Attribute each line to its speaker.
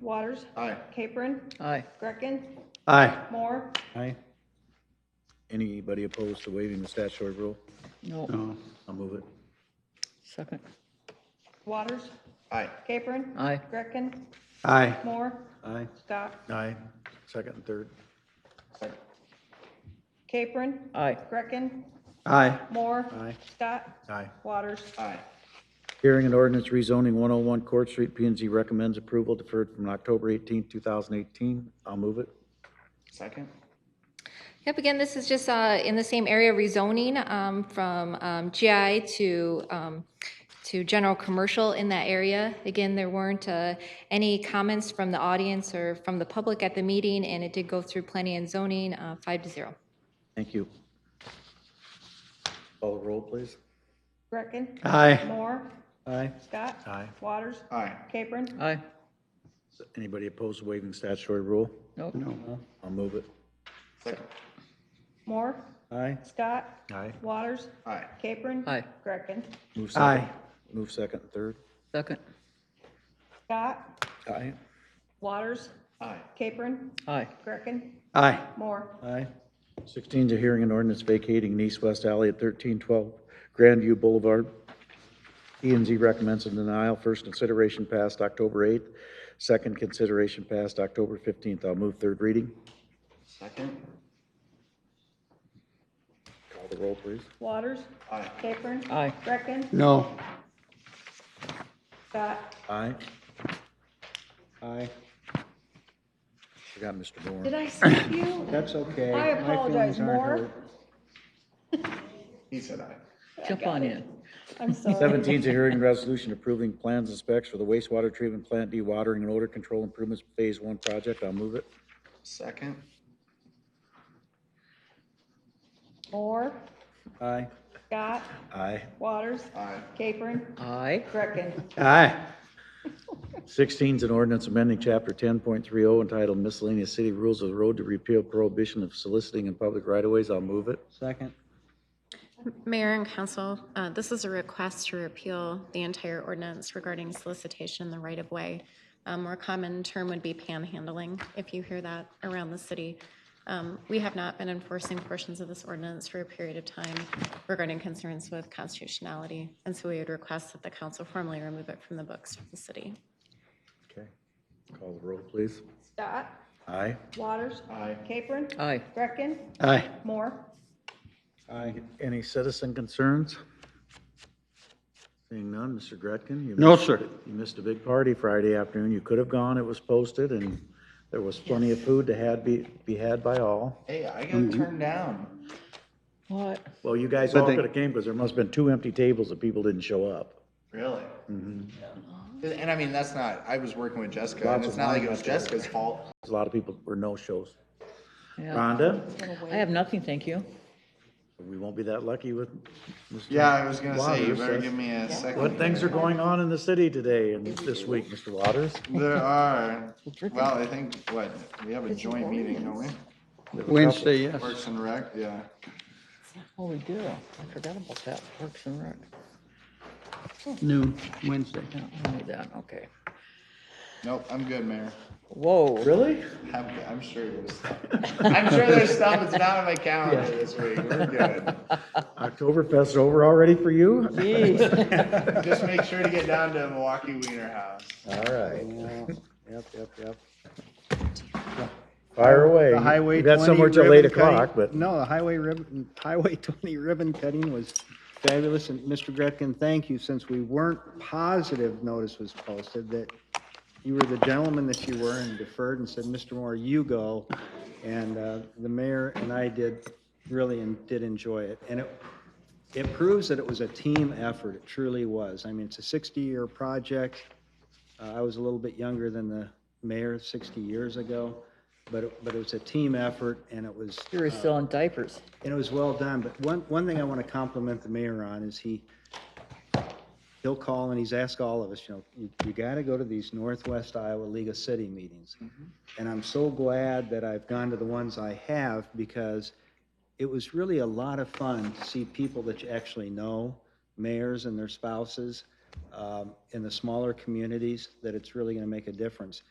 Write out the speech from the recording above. Speaker 1: Waters.
Speaker 2: Aye.
Speaker 1: Capron.
Speaker 3: Aye.
Speaker 1: Greckin.
Speaker 4: Aye.
Speaker 1: Moore.
Speaker 4: Aye.
Speaker 2: Anybody opposed to waiving the statutory rule?
Speaker 3: No,
Speaker 4: No.
Speaker 2: I'll move it.
Speaker 3: second.
Speaker 1: Waters.
Speaker 2: Aye.
Speaker 1: Capron.
Speaker 3: Aye.
Speaker 1: Greckin.
Speaker 4: Aye.
Speaker 1: Moore.
Speaker 4: Aye.
Speaker 1: Scott.
Speaker 2: Aye. Second and third.
Speaker 1: Capron.
Speaker 3: Aye.
Speaker 1: Greckin.
Speaker 4: Aye.
Speaker 1: Moore.
Speaker 4: Aye.
Speaker 1: Scott.
Speaker 2: Aye.
Speaker 1: Waters.
Speaker 2: Aye. Hearing an ordinance rezoning 101 Court Street, p and Z recommends approval deferred from October 18, 2018. I'll move it. Second.
Speaker 5: Yep, again, this is just uh, in the same area rezoning um, from um, GI to, um, to general commercial in that area. Again, there weren't uh, any comments from the audience or from the public at the meeting, and it did go through planning and zoning, uh, five to zero.
Speaker 2: Thank you. Call the roll, please.
Speaker 1: Greckin.
Speaker 4: Aye.
Speaker 1: Moore.
Speaker 4: Aye.
Speaker 1: Scott.
Speaker 2: Aye.
Speaker 1: Waters.
Speaker 2: Aye.
Speaker 1: Capron.
Speaker 3: Aye.
Speaker 2: Anybody opposed to waiving statutory rule?
Speaker 3: Nope.
Speaker 4: No.
Speaker 2: I'll move it. Second.
Speaker 1: Moore.
Speaker 4: Aye.
Speaker 1: Scott.
Speaker 2: Aye.
Speaker 1: Waters.
Speaker 2: Aye.
Speaker 1: Capron.
Speaker 3: Aye.
Speaker 1: Greckin.
Speaker 2: Move second.
Speaker 4: Aye.
Speaker 2: Move second and third.
Speaker 3: Second.
Speaker 1: Scott.
Speaker 2: Aye.
Speaker 1: Waters.
Speaker 2: Aye.
Speaker 1: Capron.
Speaker 3: Aye.
Speaker 1: Greckin.
Speaker 4: Aye.
Speaker 1: Moore.
Speaker 4: Aye.
Speaker 2: 16 to hearing an ordinance vacating an east-west alley at 1312 Grandview Boulevard. E and Z recommends a denial. First consideration passed October 8th. Second consideration passed October 15th. I'll move third reading. Second. Call the roll, please.
Speaker 1: Waters.
Speaker 2: Aye.
Speaker 1: Capron.
Speaker 3: Aye.
Speaker 1: Greckin.
Speaker 4: No.
Speaker 1: Scott.
Speaker 2: Aye.
Speaker 4: Aye.
Speaker 2: Forgot Mr.
Speaker 1: Did
Speaker 2: Moore.
Speaker 1: I skip you?
Speaker 4: That's okay.
Speaker 1: I apologize, Moore.
Speaker 2: He said aye.
Speaker 3: Jump on in.
Speaker 1: I'm sorry.
Speaker 2: 17 to hearing resolution approving plans and specs for the wastewater treatment plant dewatering and odor control improvements Phase 1 project. I'll move it. Second.
Speaker 1: Moore.
Speaker 4: Aye.
Speaker 1: Scott.
Speaker 2: Aye.
Speaker 1: Waters.
Speaker 2: Aye.
Speaker 1: Capron.
Speaker 3: Aye.
Speaker 1: Greckin.
Speaker 4: Aye.
Speaker 2: 16 is an ordinance amending Chapter 10.30 entitled Miscellaneous City Rules of the Road to repeal prohibition of soliciting in public right-of-ways. I'll move it.
Speaker 4: Second.
Speaker 6: Mayor and council, uh, this is a request to repeal the entire ordinance regarding solicitation in the right-of-way. A more common term would be panhandling, if you hear that around the city. Um, We have not been enforcing portions of this ordinance for a period of time regarding concerns with constitutionality, and so we would request that the council formally remove it from the books of the city.
Speaker 2: Okay. Call the roll, please.
Speaker 1: Scott.
Speaker 2: Aye.
Speaker 1: Waters.
Speaker 2: Aye.
Speaker 1: Capron.
Speaker 3: Aye.
Speaker 1: Greckin.
Speaker 4: Aye.
Speaker 1: Moore.
Speaker 4: Aye.
Speaker 2: Any citizen concerns? Seeing none, Mr. Gretkin? you
Speaker 4: No,
Speaker 2: missed-
Speaker 4: sir.
Speaker 2: You missed a big party Friday afternoon. You could have gone, it was posted, and there was plenty of food to had, be, be had by all.
Speaker 7: Hey, I got turned down.
Speaker 3: What?
Speaker 2: Well, you guys
Speaker 4: But
Speaker 2: all
Speaker 4: they-
Speaker 2: could have came, because there must have been two empty tables that people didn't show up.
Speaker 7: Really? And I mean, that's not, I was working with Jessica,
Speaker 2: Mm-hmm. Lots
Speaker 7: and
Speaker 2: of
Speaker 7: it's not like
Speaker 2: wine
Speaker 7: it was
Speaker 2: out there.
Speaker 7: Jessica's fault.
Speaker 2: A lot of people were no-shows.
Speaker 3: Yeah.
Speaker 2: Rhonda,
Speaker 3: I have nothing, thank you.
Speaker 2: we won't be that lucky with Mr.
Speaker 7: Yeah, I was gonna say, you
Speaker 2: Waters.
Speaker 7: better
Speaker 2: That's-
Speaker 7: give me a second.
Speaker 2: What things are
Speaker 7: here.
Speaker 2: going on in the city today and this week, Mr. Waters?
Speaker 7: There are, well, I think, what, we have a joint meeting, don't we?
Speaker 2: There was a couple.
Speaker 4: Wednesday, yes.
Speaker 7: Parks and Rec, yeah.
Speaker 3: Oh, we do. I forgot about that. Parks and Rec.
Speaker 4: Noon, Wednesday.
Speaker 3: Yeah, I knew that, okay.
Speaker 7: Nope, I'm good, Mayor.
Speaker 3: Whoa.
Speaker 2: Really?
Speaker 7: I'm, good. I'm sure it was, I'm sure there's stuff that's not on my calendar this week. We're good.
Speaker 2: Oktoberfest over already for you?
Speaker 3: Jeez.
Speaker 7: Just make sure to get down to Milwaukee Wiener House.
Speaker 2: All right. Yep, yep, yep. Fire away.
Speaker 8: The highway.
Speaker 2: That's
Speaker 8: 20
Speaker 2: somewhere till eight
Speaker 8: ribbon cutting-
Speaker 2: o'clock, but
Speaker 8: No, the highway ribbon, highway twenty ribbon cutting was fabulous, and Mr. Gretkin, thank you, since we weren't positive notice was posted, that you were the gentleman that you were and deferred and said, Mr. Moore, you go. And, uh, the mayor and I did, really en- did enjoy it, and it, it proves that it was a team effort, it truly was. I mean, it's a sixty-year project, uh, I was a little bit younger than the mayor 60 years ago, but, it- but it was a team effort and it was, uh,
Speaker 3: You were still in diapers.
Speaker 8: and it was well done. But one, one thing I want to compliment the mayor on is he, he'll call and he's asked all of us, you know, you, you got to go to these Northwest Iowa League of City meetings. And I'm so glad that I've gone to the ones I have because it was really a lot of fun to see people that you actually know, mayors and their spouses, um, in the smaller communities, that it's really going to make a difference.